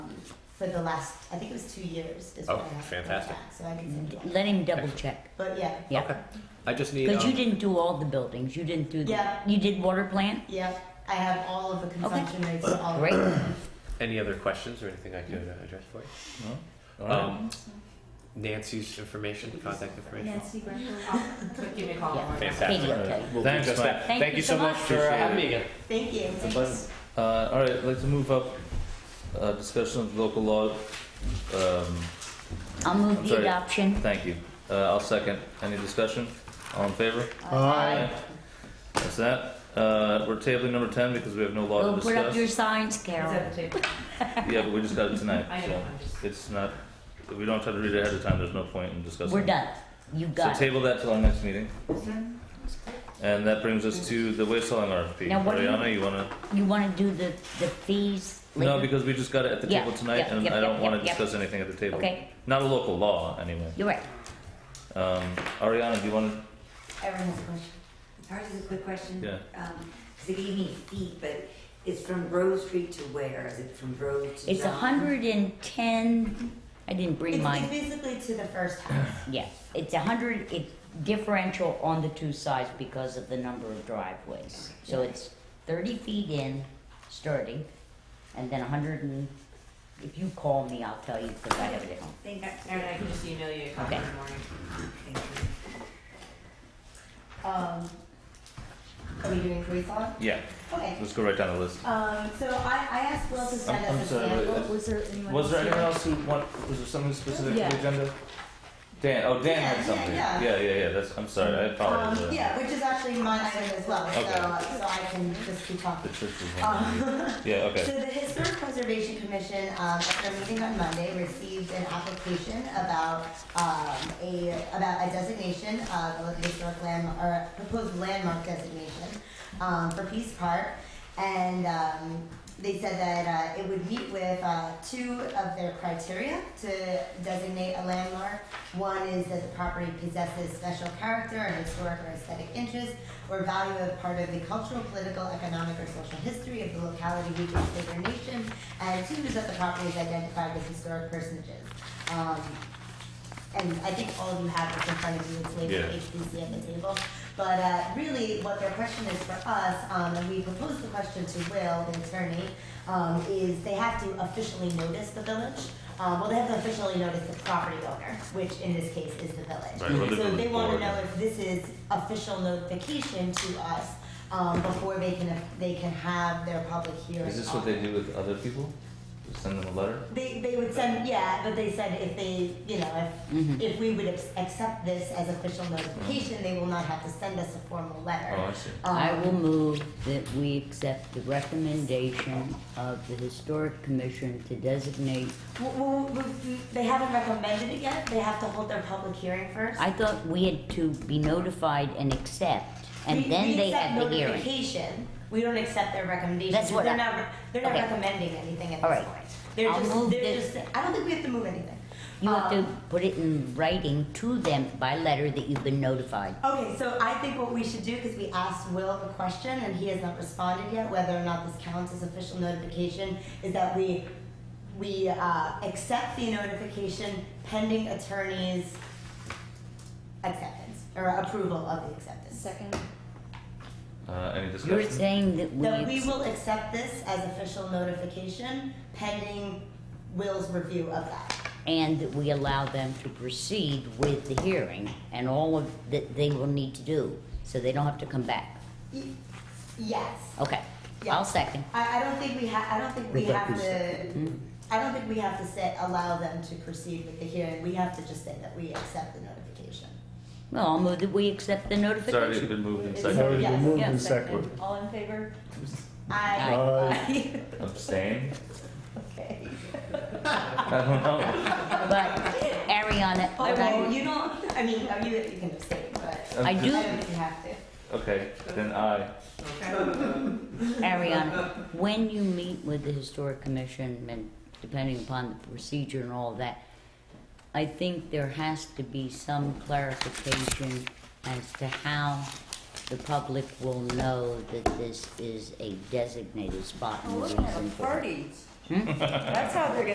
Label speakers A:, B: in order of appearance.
A: for the last, I think it was two years is what
B: Oh,
A: I have.
B: fantastic.
A: So I can send you one.
C: Let him double check.
A: But yeah,
C: Yeah.
B: Okay. I just need.
C: Because you
B: um,
C: didn't do all the buildings. You didn't do the.
A: Yeah.
C: You did water plant?
A: yeah, I have all of the consumption rates and all of
C: Great.
B: Any other questions or anything I could uh, address for you?
D: All right.
B: Um, Nancy's information, contact information.
E: Nancy Greco. Give me a call.
C: Yeah.
B: Fantastic.
C: Katie will tell you.
D: We'll do
B: Thanks,
D: just that.
C: Thank you so much.
B: for uh, having me again.
A: Thank you.
D: It's a pleasure. Uh, all right, I'd like to move up uh, discussion of local law. Um,
C: I'll move
D: I'm
C: the
D: sorry.
C: adoption.
D: thank you. Uh, I'll second. Any discussion? All in favor?
C: Aye.
D: That's that. Uh, we're tabling number 10 because we have no law
C: We'll
D: to
C: put up
D: discuss.
C: your signs,
E: It's
C: Carol.
E: at the table.
D: yeah, but we just got it tonight.
E: I know, I'm just.
D: So it's not, we don't have to read it ahead of time. There's no point in discussing
C: We're
D: it.
C: done. You
D: So
C: got it.
D: table that till our next meeting. And that brings us to the waste hauling RFP.
C: Now, what do you-
D: Ariana, you wanna?
C: You want to do the, the fees
D: No,
C: later?
D: because we just got it at the
C: Yeah,
D: table tonight
C: yeah,
D: and
C: yeah,
D: I don't
C: yeah,
D: wanna
C: yeah, yeah.
D: discuss anything at the table.
C: Okay,
D: Not a local law, anyway.
C: you're right.
D: Um, Ariana, do you wanna,
F: Everyone has a question. Ours is a quick question.
D: Yeah.
F: Because it gave me feet, but it's from Rose Street to where? Is it from Rose to
C: It's
F: John?
C: hundred and ten, I didn't bring
A: It's,
C: mine.
A: it's basically to the first house.
C: Yeah, it's a hundred, it differential on the two sides because of the number of driveways. So it's thirty feet in, starting, and then a hundred and, if you call me, I'll tell you because I have it at home.
F: Thank you.
E: Erin, I can just email you a copy in the morning.
F: Thank you.
A: Um, are we doing free thought?
D: yeah,
A: Okay.
D: let's go right down the list.
A: Um, so I, I asked Will to send
D: I'm- I'm
A: us a
D: sorry, but
A: sample.
D: I-
A: Was there anyone?
D: Was there anyone else who want, was there something specific to
A: Yeah.
D: the agenda? Dan, oh, Dan
A: Yeah,
D: had
A: yeah,
D: something.
A: yeah.
D: Yeah, yeah, yeah, that's, I'm sorry, Oh, I
A: Um,
D: apologize.
A: yeah, which is actually my item as well, so, uh,
D: Okay.
A: so I can just keep
D: The
A: talking.
D: church is one.
A: Um,
D: Yeah, okay.
A: So the Historic Preservation Commission, um, at their meeting on Monday, received an application about, um, a, about a designation of a historic landmark, or proposed landmark designation, um, for Peace Park. And, um, they said that, uh, it would meet with, uh, two of their criteria to designate a landmark. One is that the property possesses special character and historic or aesthetic interest, or value of part of the cultural, political, economic, or social history of the locality, region, state, or nation, and two is that the property is identified with historic personages. Um, and I think all of you have this in front of you, it's labeled
D: Yeah.
A: HBC at the table. But uh, really, what their question is for us, um, and we proposed the question to Will, the attorney, um, is they have to officially notice the village. Um, well, they have to officially notice the property owner, which in this case is the village.
D: Right, or the
A: So they
D: village
A: wanna
D: board.
A: know if this is official notification to us, um, before they can, they can have their public hearing.
D: Is this what
A: on
D: they
A: it.
D: do with other people? Just Send them a letter?
A: They, they would send, yeah, but they said if they, you know, if,
C: Mhm.
A: if we would ex- accept this as official notification, they will not have to send us a formal letter.
D: Oh, I see.
A: Um,
C: I will move that we accept the recommendation of the Historic Commission to designate.
A: w- w- w- they haven't recommended it yet, they have to hold their public hearing first.
C: I thought we had to be notified and accept,
A: We-
C: and then
A: we
C: they
A: accept
C: had the hearing.
A: notification, we don't accept their recommendation,
C: That's
A: because
C: what
A: they're
C: I-
A: not, re- they're not
C: okay.
A: recommending anything at
C: All
A: this
C: right.
A: point. They're
C: I'll
A: just,
C: move
A: they're
C: this-
A: just, I don't think we have to move anything.
C: You have to
A: Um,
C: put it in writing to them by letter that you've been notified.
A: Okay, so I think what we should do, because we asked Will the question and he has not responded yet, whether or not this counts as official notification, is that we, we, uh, accept the notification pending attorney's acceptance, or approval of the acceptance.
E: Second.
D: Uh, any
C: You're
D: discussion?
C: saying that we.
A: That we
C: accept-
A: will accept this as official notification pending Will's review of that.
C: and that we allow them to proceed with the hearing and all of that they will need to do, so they don't have to come back.
A: Y- Yes.
C: Okay,
A: Yeah.
C: I'll second. Hmm.
A: I, I don't think we ha, I don't think we have
D: Rebecca's
A: to, I don't think we have to say, allow them to proceed with the hearing, we have to just say that we accept the notification.
C: Well, I'll move that we accept the
D: It's already
C: notification.
D: been moved and
E: It's
A: Second.
D: seconded.
A: already- Yes,
G: moved
C: yeah,
G: in second.
E: All in favor?
A: I,
G: Aye.
D: Abstain?
A: okay.
D: I don't know.
C: But Ariana,
A: Oh, well,
C: I,
A: you don't, I mean, oh, you, you can abstain, but
D: I'm
C: I
A: I
D: just-
A: don't think you have to.
D: Okay, then aye.
E: Okay.
C: Ariana, when you meet with the historic commission and depending upon the procedure and all that, I think there has to be some clarification as to how the public will know that this is a designated spot and the reason for it.
E: That's how they're